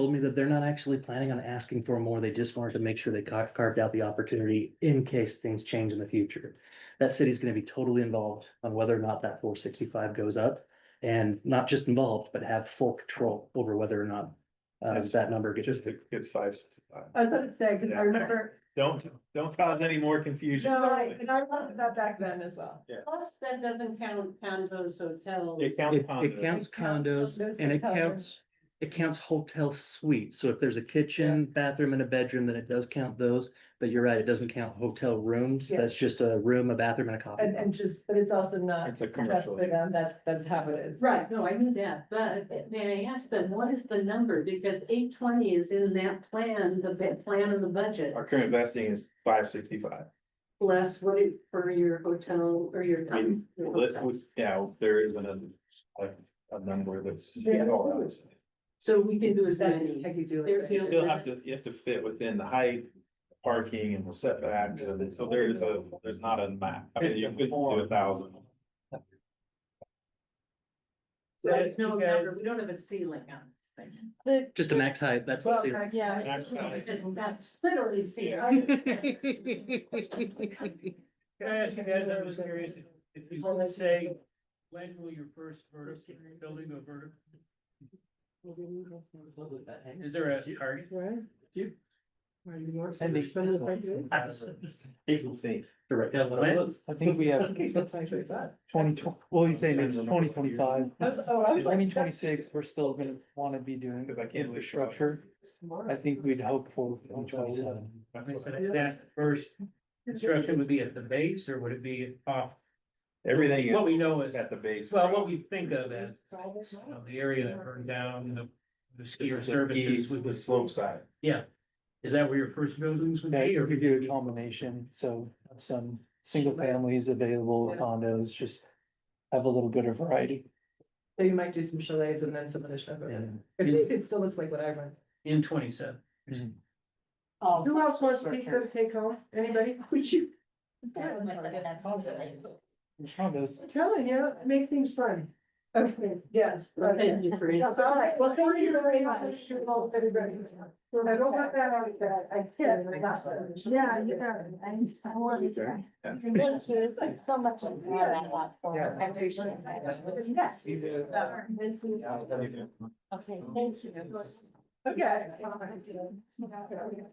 told me that they're not actually planning on asking for more. They just wanted to make sure they ca- carved out the opportunity in case things change in the future. That city's gonna be totally involved on whether or not that four sixty-five goes up. And not just involved, but have full control over whether or not uh, Yes. that number It gets. just, it's five, six, five. I was gonna say, cause I remember, Don't, don't cause any more confusion. no, I- and I loved that back then as well. Plus, that doesn't count condos, hotels. It It counts it counts condos. It counts condos condos and it and hotels. counts, it counts hotel suites. So if there's a kitchen, bathroom and a bedroom, then it does count those. But you're right, it doesn't count hotel rooms. Yes. That's just a room, a bathroom and a coffee. And, and just, but it's also not It's a just commercial. for them, that's, that's how it is. Right, no, I knew that, but may I ask them, what is the number? Because eight twenty is in that plan, the bit plan and the budget. Our current vesting is five sixty-five. Plus, what it for your hotel or your. I mean, your Let's, hotel. yeah, there isn't a, like, a number that's. Yeah. all that is. So we can do as That's- many. I could do There's You no- it. still have to, you have to fit within the height, parking and the setbacks, and then- so there is a, there's not a map. I mean, you could do a thousand. So There's no number, we don't have a ceiling on this thing. The, Just a max height, that's the Well, ceiling. yeah, Actually. That's literally ceiling. Can I ask you guys, I was curious, if- if you want to say, when will your first vertical building go vertical? Is there a target? People think. Direct. I think we have twenty twenty, well, you say it's twenty twenty-five, I was, oh, I was like. twenty twenty-six, we're still gonna wanna be doing Cause I can't. really show up. infrastructure. I think we'd hope for twenty twenty-seven. That's what I- That first construction would be at the base or would it be off? Everything What is we know is, at the base. well, what we think of as, you know, the area that burned down, you know, the skier It's the services. east, would The slope side. Yeah. Is that where your first buildings would Yeah, be you or? could do a combination, so some single families available condos, just have a little bit of variety. So you might do some chalets and then some of the stuff. over there. It, it it still looks like what I run. In twenty-seven? Oh. Who else wants a piece of take home? Anybody? Would you? Condos, I'm telling you, make things fun. Okay, yes. okay. Thank you for. All right, well, thank you very much. Well, everybody. I don't want that out of that. I can't. I got that. Yeah, you know, I'm sorry. Thank you so much for that lot, I appreciate that. Yes. Okay, thank you. Okay.